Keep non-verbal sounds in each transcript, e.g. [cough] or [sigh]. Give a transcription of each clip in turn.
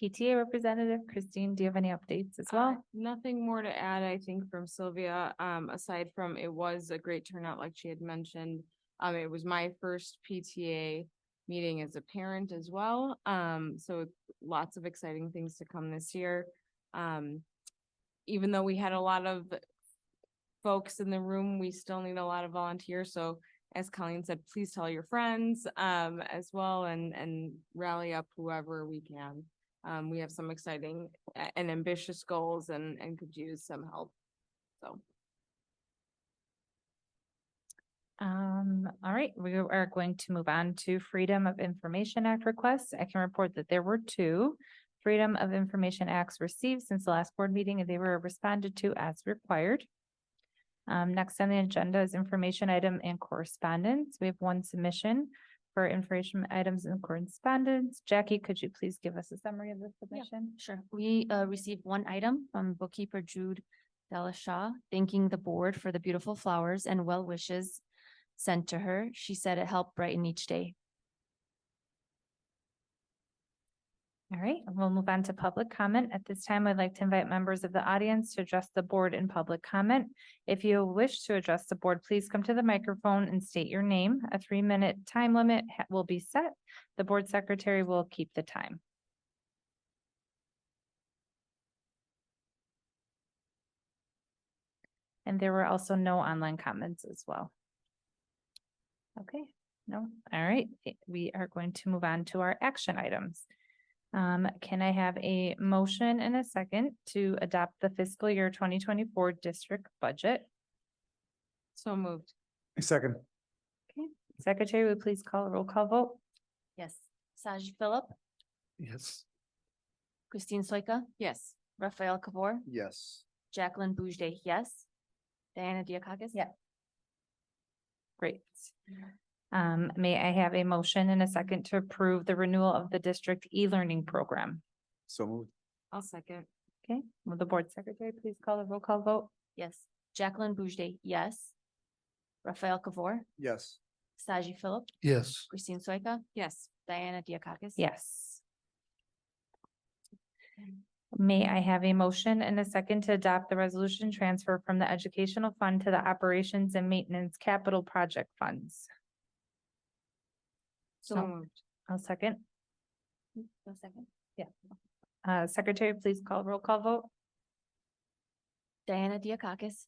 PTA representative. Christine, do you have any updates as Uh, well? Nothing more to add, I think, from Sylvia, um, aside from it was a great turnout, like she had mentioned. Um, it was my first PTA meeting as a parent as well, um, so lots of exciting things to come this year. Um, even though we had a lot of folks in the room, we still need a lot of volunteers, so as Colleen said, please tell your friends, um, as well and, and rally up whoever we can. Um, we have some exciting a- and ambitious goals and, and could use some help. So, Um, all right, we are going to move on to Freedom of Information Act requests. I can report that there were two. Freedom of Information Acts received since the last board meeting and they were responded to as required. Um, next on the agenda is information item and correspondence. We have one submission for information items and correspondence. Jackie, could you please give us a summary of the submission? Sure. We uh received one item from bookkeeper Jude Delashaw, thanking the board for the beautiful flowers and well wishes sent to her. She said it helped brighten each day. All right, and we'll move on to public comment. At this time, I'd like to invite members of the audience to address the board in public comment. If you wish to address the board, please come to the microphone and state your name. A three-minute time limit ha- will be set. The board secretary will keep the time. And there were also no online comments as well. Okay, no, all right, Eh, we are going to move on to our action items. Um, can I have a motion and a second to adopt the fiscal year twenty twenty-four district budget? so moved. Second, Secretary, would you please call a roll call vote? Yes. Saj Philip, yes. Christine Soika, Yes. Raphael Kabor, Yes. Jacqueline Boujde, yes. Diana Diakakis? Yeah. Great. Um, may I have a motion and a second to approve the renewal of the district e-learning program? So moved, I'll second. Okay, will the board secretary please call a roll call vote? Yes. Jacqueline Boujde, yes. Raphael Kabor, yes. Saji Philip, Yes. Christine Soika, Yes. Diana Diakakis? Yes. May I have a motion and a second to adopt the resolution transfer from the educational fund to the operations and maintenance capital project funds? So No. moved. I'll second. No second. Uh, secretary, please call roll call vote. Diana Diakakis,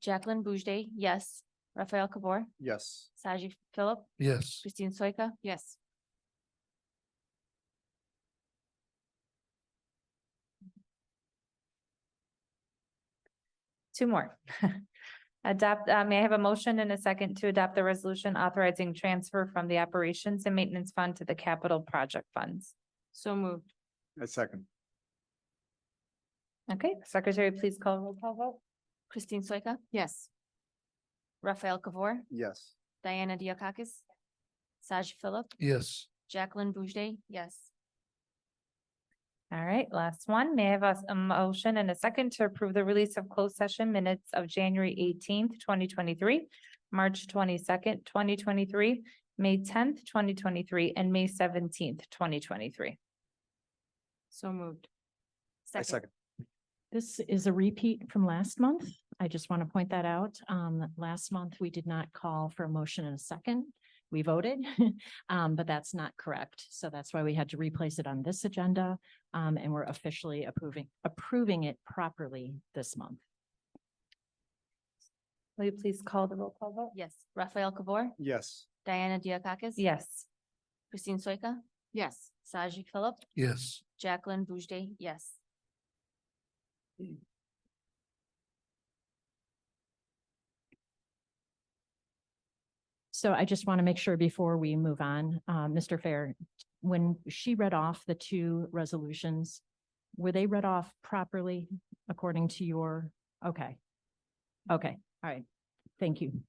Jacqueline Boujde, yes. Raphael Kabor, Yes. Saji Philip, Yes. Christine Soika, Yes. Two more. [laughs] Adopt, uh, may I have a motion and a second to adopt the resolution authorizing transfer from the operations and maintenance fund to the capital project funds? So moved. A second, Okay, secretary, please call roll call vote. Christine Soika, Yes. Raphael Kabor, yes. Diana Diakakis, Saji Philip, Yes. Jacqueline Boujde, yes. All right, last one. May I have a, s- a motion and a second to approve the release of closed session minutes of January eighteenth, twenty twenty-three, March twenty-second, twenty twenty-three, May tenth, twenty twenty-three, and May seventeenth, twenty twenty-three. So moved. A second, This is a repeat from last month. I just want to point that out. Um, last month, we did not call for a motion and a second. We voted, [laughs] um, but that's not correct. So that's why we had to replace it on this agenda. Um, and we're officially approving, approving it properly this month. Will you please call the roll call vote? Yes. Raphael Kabor, yes. Diana Diakakis? Yes. Christine Soika, Yes. Saji Philip, Yes. Jacqueline Boujde, yes. So I just want to make sure before we move on, uh, Mr. Fair, when she read off the two resolutions, were they read off properly according to your, okay? Okay, all right. Thank you.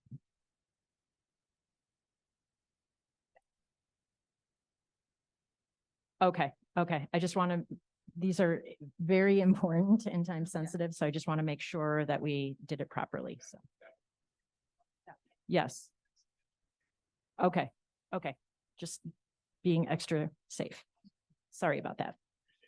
Okay, okay. I just want to, these are very [laughs] important and time sensitive, so I just want to make sure that we did it properly, so. Yes. Okay, okay, just being extra safe. Sorry about that.